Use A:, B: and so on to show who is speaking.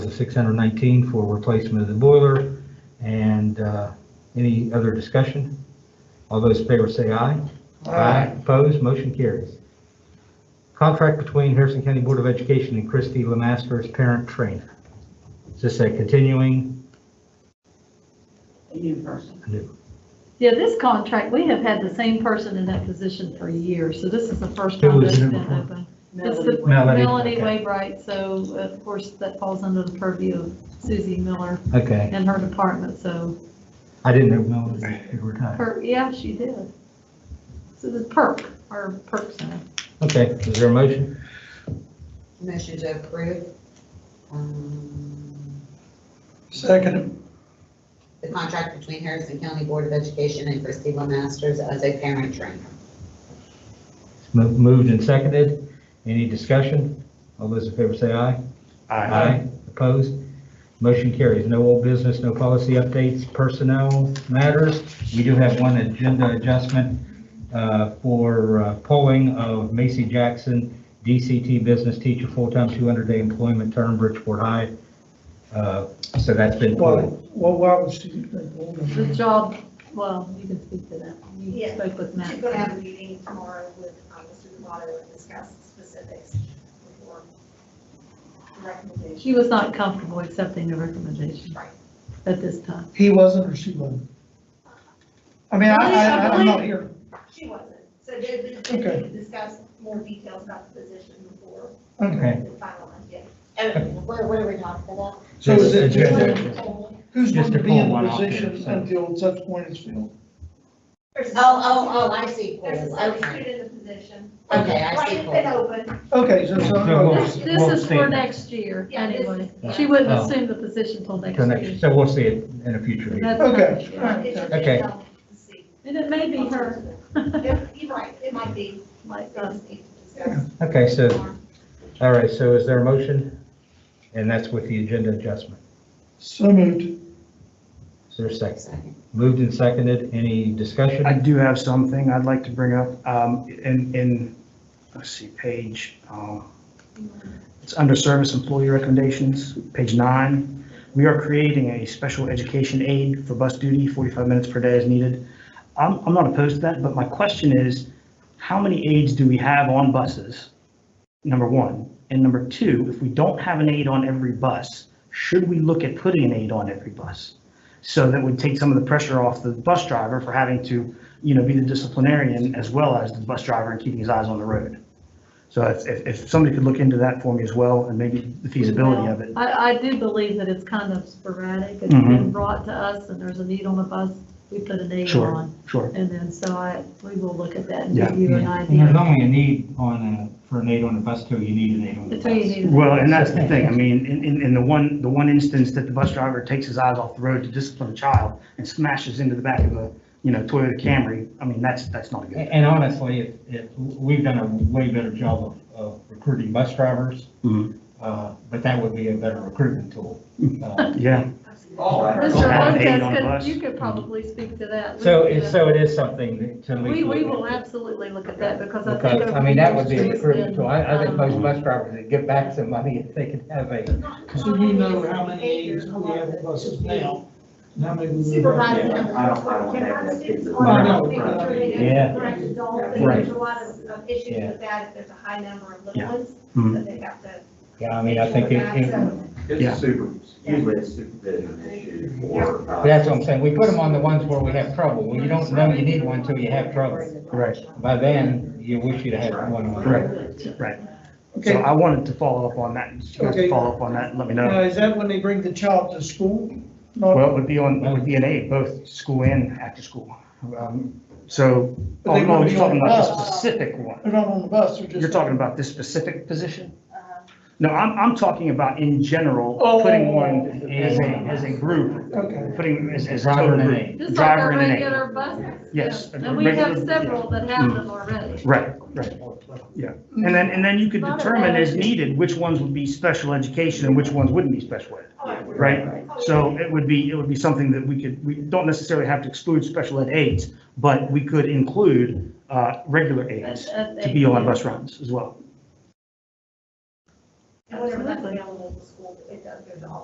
A: of 619 for replacement of the boiler. And uh, any other discussion? All those in favor say aye. Opposed, motion carries. Contract between Harrison County Board of Education and Christy Lemaster as parent trainer. Is this a continuing?
B: A new person.
C: Yeah, this contract, we have had the same person in that position for years, so this is the first
A: Who
C: time
A: was
C: that's
A: it
C: been
A: before?
C: open. It's
B: Melody
C: the
B: Wade.
A: Melody,
C: Melanie
A: okay.
C: Wainwright, so of course that falls under the purview of Susie Miller
A: Okay,
C: and her department, so
A: I didn't know we were time.
C: her, yeah, she did. So the perk, our perk center.
A: Okay, is there a motion?
D: Motion to approve, um,
E: Second,
D: the contract between Harrison County Board of Education and Christy Masters as a parent trainer.
A: Mo- Moved and seconded. Any discussion? All those in favor say aye. Opposed? Motion carries. No old business, no policy updates, personnel matters. We do have one agenda adjustment uh, for uh, polling of Macy Jackson, DCT business teacher, full-time 200-day employment term, Bridgeport High. Uh, So that's been
E: Well,
A: pulled.
E: what, what was she?
C: The job, well, you can speak to that. You
F: Yeah.
C: spoke with
F: She's gonna have
C: Matt.
F: a meeting tomorrow with um, Mr. Demato and discuss specifics before recommendation.
C: She was not comfortable accepting the recommendation
F: Right.
C: at this time.
E: He wasn't or she wasn't? I mean, I, I, I'm not here.
F: She wasn't, so they, they- they
E: Okay.
F: discuss more details about the position before
E: Okay.
F: the final one, yeah.
D: And what, what are we talking about?
E: So is
A: Yes,
E: it,
A: agenda.
E: who's going
G: Just
E: to
G: to
E: be in
G: pull one
E: the
G: off there,
E: position
G: so.
E: until such point is filled?
F: There's a-
D: Oh, oh, oh, I see,
F: There's a
D: polls,
F: substitute
D: okay,
F: in the position.
D: okay, I
F: Right,
D: see
F: it's been
D: polls.
F: open,
E: Okay, so, so,
A: So
C: This,
E: okay.
A: we'll-
C: this
A: we'll
C: is
A: see.
C: for next year,
F: Yeah, this-
C: anyway.
F: yeah.
C: She wouldn't
A: Oh.
C: assume the position till next
A: So
C: year.
A: next- so we'll see it in a future meeting.
C: That's not
E: Okay.
C: this year.
E: Alright.
F: it should
A: Okay.
F: be done to see.
C: And it may be her,
F: If- You're right, it might be,
C: like,
F: they
C: uh,
F: just need to discuss.
A: Okay, so,
F: more.
A: all right, so is there a motion? And that's with the agenda adjustment.
E: so moved.
A: Is there a second?
D: Second.
A: Moved and seconded. Any discussion?
G: I do have something I'd like to bring up, um, in, in, let's see, page, um, it's under service employee recommendations, page nine. We are creating a special education aid for bus duty, 45 minutes per day as needed. I'm, I'm not opposed to that, but my question is, how many aides do we have on buses? Number one. And number two, if we don't have an aide on every bus, should we look at putting an aide on every bus? So that would take some of the pressure off the bus driver for having to, you know, be the disciplinarian as well as the bus driver and keeping his eyes on the road. So if, if, if somebody could look into that for me as well and maybe the feasibility of it.
C: I, I do believe that it's kind of sporadic. It's been
G: Mhm.
C: brought to us and there's a need on a bus, we put a need
G: Sure.
C: on.
G: Sure.
C: And then, so I, we will look at that and
G: Yeah.
C: give you an
A: And there's
C: idea.
A: only a need on a, for an aid on the bus till you need an aid on the
C: That's all you
A: bus.
C: need.
G: Well, and that's the thing. I mean, in, in, in the one, the one instance that the bus driver takes his eyes off the road to discipline a child and smashes into the back of a, you know, Toyota Camry, I mean, that's, that's not a good
A: A- And honestly, it, it, we've done a way better job of, of recruiting bus drivers,
G: thing.
A: uh, but that would be a better recruitment tool. Uh,
G: Yeah, Have an aid on a
C: Mr.
G: bus.
C: Lopez, could- you could probably speak to that. We-
A: So it, so it is something that- to. at
C: We,
A: least
C: we
A: look
C: will
A: at.
C: absolutely look at that because I think.
A: Because, I mean, that would be a
C: over the years,
A: recruitment tool. I, I think
C: um,
A: most bus drivers would give back some money if they could have a,
E: So you know how many aides we have on buses now? and how many we will have.
F: Supervisor.
H: I don't- I don't have that figure.
A: Yeah.
F: Correct adults, and
A: Right.
F: there's a lot of of issues
A: Yeah.
F: with that, if there's a high number of little
G: Yeah.
F: ones,
G: Mhm.
F: that they have to.
A: yeah, I mean, I think it,
F: Yeah,
A: it-
F: so-
G: Yeah.
H: It's super, usually it's supervision issue or. uh,
A: that's what I'm saying. We put them on the ones where we have trouble. Well, you don't know you need one until you have trouble.
G: right.
A: By then, you wish you'd had one on.
G: Correct. Right. So
E: Okay,
G: I wanted to follow up on that, If you guys
E: Okay.
G: follow up on that, let me
E: now
G: know.
E: is that when they bring the child to school? Not-
G: Well, it would be on, it would be an aid, both school and after school. Um, So,
E: But
G: oh,
E: they
G: no,
E: wouldn't be
G: you're talking
E: on
G: about
E: bus.
G: this specific one.
E: They're not on the bus, they're just. Uh-huh.
G: You're talking about this specific position? No, I'm, I'm talking about in general,
E: Oh.
G: putting one as a, as a group,
E: Okay.
G: putting as, as a
A: Driver
G: total
A: and an
G: group.
A: aide.
C: Just like
G: Driver
C: our
G: and an aide.
C: regular buses.
G: Yes.
C: yeah. And we have several that have them already.
G: Right, right, yeah. And then, and then you could determine as needed which ones would be special education and which ones wouldn't be special ed. Right, so it would be, it would be something that we could, we don't necessarily have to exclude special ed aides, but we could include uh, regular aides to be on bus runs as well.
F: And whenever that's available to school, it does go to all